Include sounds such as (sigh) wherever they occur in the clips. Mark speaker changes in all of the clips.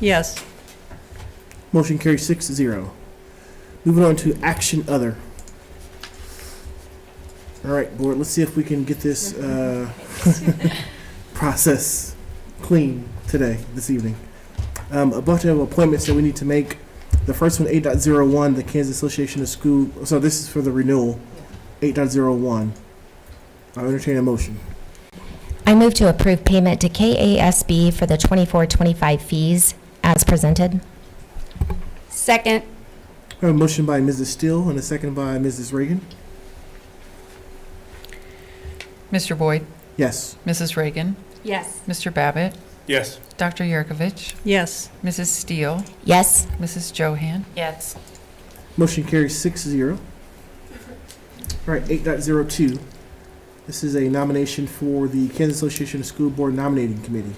Speaker 1: Yes.
Speaker 2: Motion carries six to zero. Moving on to action other. All right, board, let's see if we can get this uh, (laughs) process clean today, this evening. Um, A bunch of appointments that we need to make. The first one, 8.01, the Kansas Association of School, so this is for the renewal, 8.01. I'll entertain a motion.
Speaker 3: I move to approve payment to KASB for the 24-25 fees as presented.
Speaker 4: Second.
Speaker 2: I have a motion by Mrs. Steele and a second by Mrs. Reagan.
Speaker 1: Mr. Boyd,
Speaker 2: Yes.
Speaker 1: Mrs. Reagan,
Speaker 4: Yes.
Speaker 1: Mr. Babbitt,
Speaker 5: Yes.
Speaker 1: Dr. Yurkovich. Yes. Mrs. Steele,
Speaker 3: Yes,
Speaker 1: Mrs. Johan.
Speaker 4: Yes.
Speaker 2: Motion carries six zero. All right, eight point zero two. This is a nomination for the Kansas Association of School Board Nominating Committee.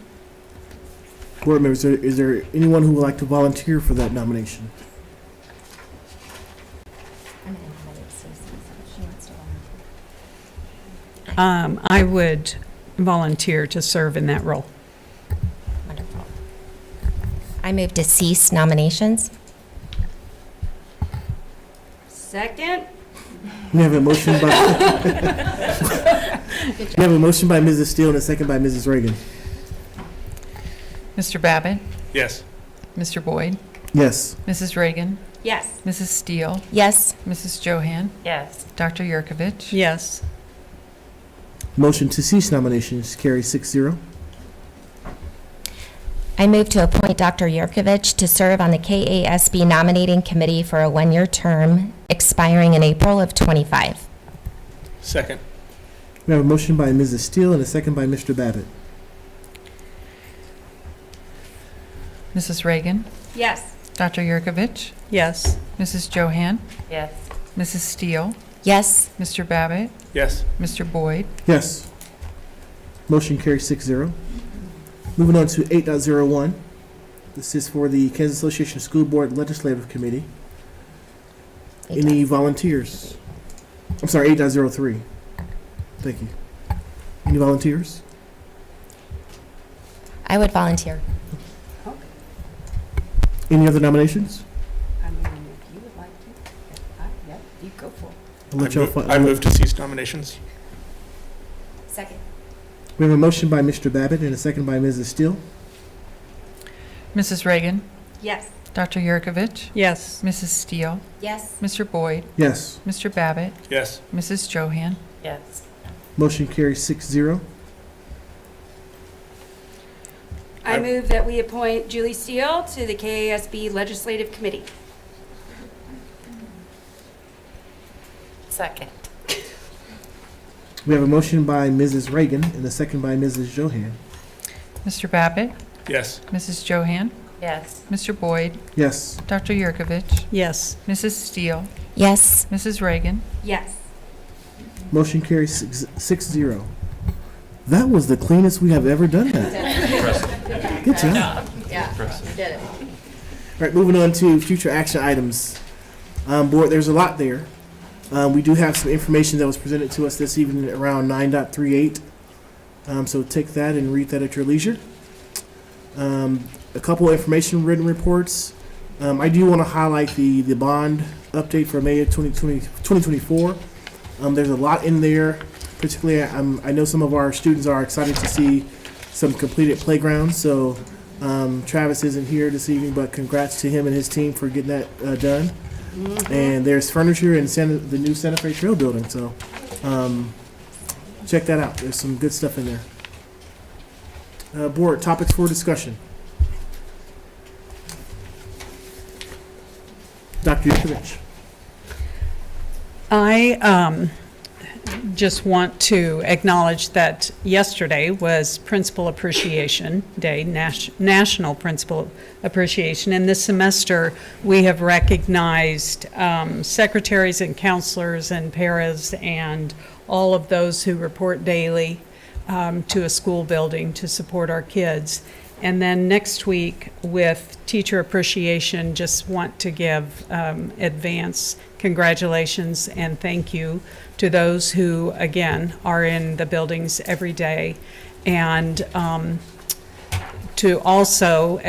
Speaker 2: Board members, is there- is there anyone who would like to volunteer for that nomination?
Speaker 6: Um, I would volunteer to serve in that role.
Speaker 3: wonderful. I move to cease nominations.
Speaker 4: Second.
Speaker 2: We have a motion by, we have a motion by Mrs. Steele and a second by Mrs. Reagan.
Speaker 1: Mr. Babbitt,
Speaker 5: Yes.
Speaker 1: Mr. Boyd,
Speaker 2: Yes.
Speaker 1: Mrs. Reagan,
Speaker 4: Yes.
Speaker 1: Mrs. Steele,
Speaker 3: Yes,
Speaker 1: Mrs. Johan,
Speaker 4: Yes.
Speaker 1: Dr. Yurkovich.
Speaker 6: Yes.
Speaker 2: Motion to cease nominations carries six zero.
Speaker 3: I move to appoint Dr. Yurkovich to serve on the KASB nominating committee for a one-year term expiring in April of '25.
Speaker 5: Second.
Speaker 2: We have a motion by Mrs. Steele and a second by Mr. Babbitt.
Speaker 1: Mrs. Reagan,
Speaker 4: Yes.
Speaker 1: Dr. Yurkovich,
Speaker 6: Yes.
Speaker 1: Mrs. Johan,
Speaker 4: Yes.
Speaker 1: Mrs. Steele,
Speaker 3: Yes,
Speaker 1: Mr. Babbitt,
Speaker 5: Yes.
Speaker 1: Mr. Boyd,
Speaker 2: Yes. Motion carries six zero. Moving on to eight point zero one. This is for the Kansas Association of School Board Legislative Committee. Any volunteers? I'm sorry, eight point zero three. Thank you. Any volunteers?
Speaker 3: I would volunteer.
Speaker 2: Any other nominations?
Speaker 4: I mean, if you would like to, I- yeah, you go for it.
Speaker 2: I'll
Speaker 5: I
Speaker 2: let y'all
Speaker 5: move-
Speaker 2: fi-
Speaker 5: I move to cease nominations.
Speaker 3: Second.
Speaker 2: We have a motion by Mr. Babbitt and a second by Mrs. Steele.
Speaker 1: Mrs. Reagan,
Speaker 4: Yes.
Speaker 1: Dr. Yurkovich,
Speaker 6: Yes.
Speaker 1: Mrs. Steele,
Speaker 3: Yes.
Speaker 1: Mr. Boyd,
Speaker 2: Yes.
Speaker 1: Mr. Babbitt,
Speaker 5: Yes.
Speaker 1: Mrs. Johan.
Speaker 4: Yes.
Speaker 2: Motion carries six zero.
Speaker 4: I
Speaker 5: I-
Speaker 4: move that we appoint Julie Steele to the KASB Legislative Committee. Second.
Speaker 2: We have a motion by Mrs. Reagan and a second by Mrs. Johan.
Speaker 1: Mr. Babbitt,
Speaker 5: Yes.
Speaker 1: Mrs. Johan,
Speaker 4: Yes.
Speaker 1: Mr. Boyd,
Speaker 2: Yes.
Speaker 1: Dr. Yurkovich,
Speaker 6: Yes.
Speaker 1: Mrs. Steele,
Speaker 3: Yes,
Speaker 1: Mrs. Reagan,
Speaker 4: Yes.
Speaker 2: Motion carries six, six zero. That was the cleanest we have ever done that. Good job. Yeah, you did it. All right, moving on to future action items. Um, board, there's a lot there. Um, we do have some information that was presented to us this evening around nine point three eight. Um, so take that and read that at your leisure. Um, a couple information written reports. Um, I do want to highlight the, the bond update for May of 2020, 2024. Um, there's a lot in there, particularly um, I know some of our students are excited to see some completed playgrounds. So um, Travis isn't here this evening, but congrats to him and his team for getting that uh, done. And there's furniture in Santa, the new Santa Fe Trail building. So um, check that out. There's some good stuff in there. Uh, board topics for discussion. Dr. Yukovich.
Speaker 6: I um, just want to acknowledge that yesterday was Principal Appreciation Day, Nas- National Principal Appreciation, and this semester, we have recognized um, secretaries and counselors and paras and all of those who report daily um, to a school building to support our kids. And then next week, with Teacher Appreciation, just want to give um, advance congratulations and thank you to those who, again, are in the buildings every day. And um, to also